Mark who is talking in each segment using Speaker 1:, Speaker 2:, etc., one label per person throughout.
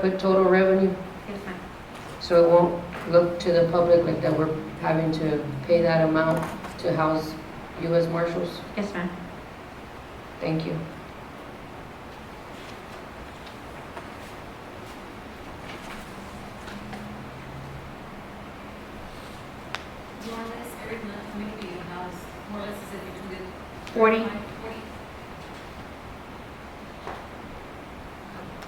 Speaker 1: with total revenue,
Speaker 2: Yes, ma'am.
Speaker 1: so it won't look to the public like that we're having to pay that amount to house U.S. Marshals?
Speaker 2: Yes, ma'am.
Speaker 1: Thank you.
Speaker 3: More or less, every month, how many do you house? More or less, is it between the?
Speaker 2: Forty,
Speaker 3: Like Forty?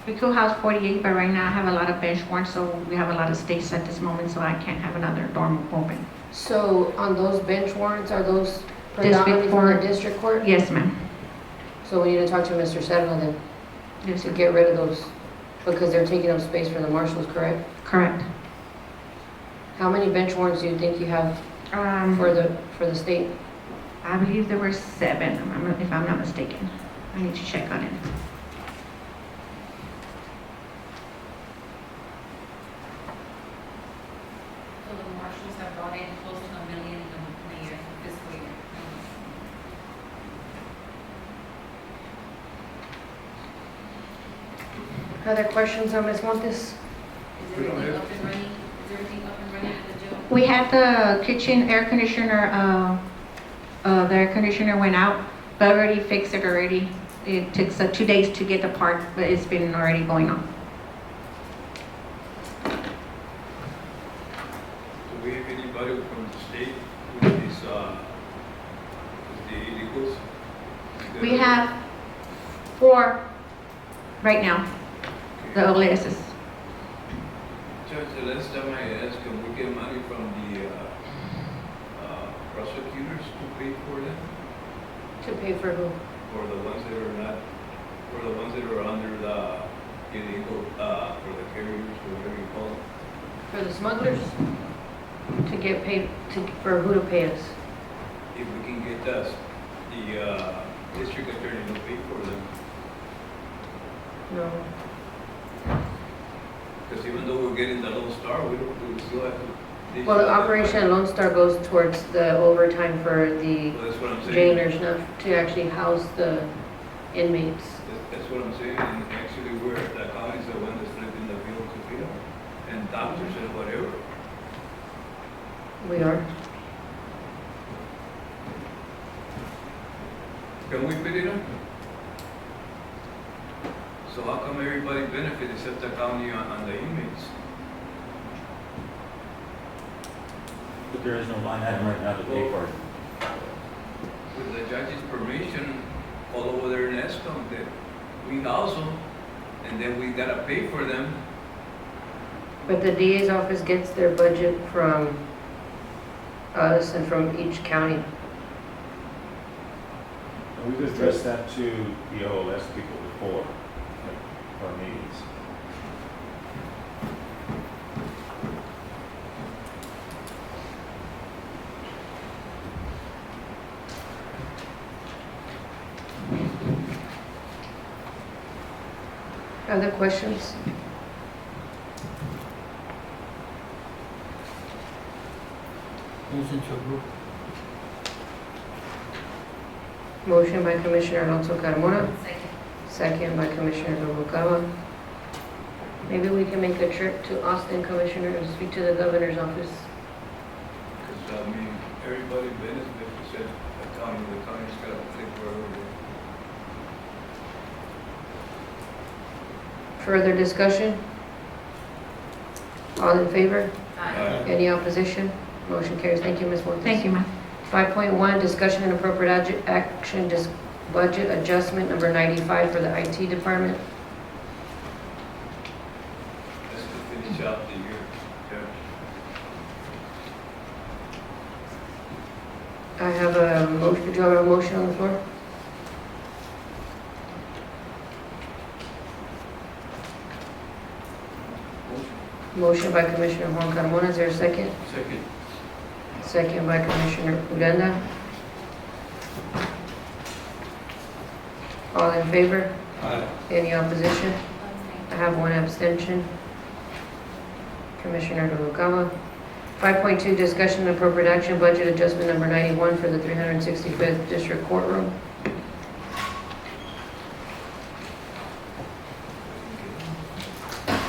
Speaker 2: we could house forty-eight, but right now I have a lot of bench warrants, so we have a lot of states at this moment, so I can't have another dorm open.
Speaker 1: So on those bench warrants, are those predominantly for the
Speaker 2: court.
Speaker 1: district court?
Speaker 2: Yes, ma'am.
Speaker 1: So we need to talk to Mr. Sedna then,
Speaker 2: Yes,
Speaker 1: to
Speaker 2: ma'am.
Speaker 1: get rid of those, because they're taking up space for the marshals, correct?
Speaker 2: correct.
Speaker 1: How many bench warrants do you think you have
Speaker 2: Um,
Speaker 1: for the, for the state?
Speaker 2: I believe there were seven, if I'm- if I'm not mistaken. I need to check on it.
Speaker 3: So the marshals have brought in close to a million in a in a year, fiscal year.
Speaker 1: Other questions on Ms. Montes?
Speaker 3: Is
Speaker 4: We don't
Speaker 3: everything
Speaker 4: have-
Speaker 3: up and running? Is everything up and running at the jail?
Speaker 2: We had the kitchen air conditioner, uh, uh, the air conditioner went out, but I already fixed it already. It took so two days to get the part, but it's been already going on.
Speaker 4: Do we have anybody from the state with these, uh, with the illegals?
Speaker 2: We have four right now, the
Speaker 4: Okay.
Speaker 2: OLSs.
Speaker 4: Judge, the last time I asked, can we get money from the, uh, uh, prosecutors to pay for them?
Speaker 1: To pay for who?
Speaker 4: For the ones that are not, for the ones that are under the illegal, uh, for the carriers, or whatever you call them?
Speaker 1: For the smugglers? To get paid, to, for who to pay us?
Speaker 4: If we can get us, the, uh, district attorney to pay for them,
Speaker 1: No.
Speaker 4: because even though we're getting the Lone Star, we don't, we still have to. they
Speaker 1: Well, the
Speaker 4: still have to-
Speaker 1: Operation Lone Star goes towards the overtime for the
Speaker 4: Well, That's what I'm saying.
Speaker 1: jailers, not to actually house the inmates.
Speaker 4: That- That's what I'm saying, and actually, we're, the county's the one that's flipping the bill to people, and doctors and whatever.
Speaker 1: We are.
Speaker 4: Can we put it on? So how come everybody benefit except the county on, on the inmates?
Speaker 5: But there is no line item right now to pay for it.
Speaker 4: With the judge's permission, all over there in Escom, that we house them, and then we gotta pay for them.
Speaker 1: But the DA's office gets their budget from us and from each county.
Speaker 6: And We've addressed that to the OLS people before, like, our meetings.
Speaker 1: Other questions? Motion by Commissioner Alonso Carmona,
Speaker 3: Second.
Speaker 1: second by Commissioner Noguera. Maybe we can make a trip to Austin, Commissioner, and speak to the governor's office.
Speaker 4: Because, I mean, everybody benefit except the county, the county's gotta pay for everything.
Speaker 1: Further discussion? All in favor?
Speaker 4: Uh,
Speaker 3: Aye.
Speaker 1: Any opposition? Motion carries. Thank you, Ms. Montes.
Speaker 2: Thank you, ma'am.
Speaker 1: 5.1, discussion and appropriate adj- action, dis- budget adjustment number 95 for the IT department.
Speaker 4: That's to finish out the year, Judge.
Speaker 1: I have a motion, do you have a motion on the floor? Motion by Commissioner Juan Carmona, is there a second?
Speaker 4: Second.
Speaker 1: Second by Commissioner Uranda. All in favor? Any opposition?
Speaker 3: Abstain.
Speaker 1: I have one abstention. Commissioner Noguera. 5.2, discussion and appropriate action, budget adjustment number 91 for the 365th District Courtroom.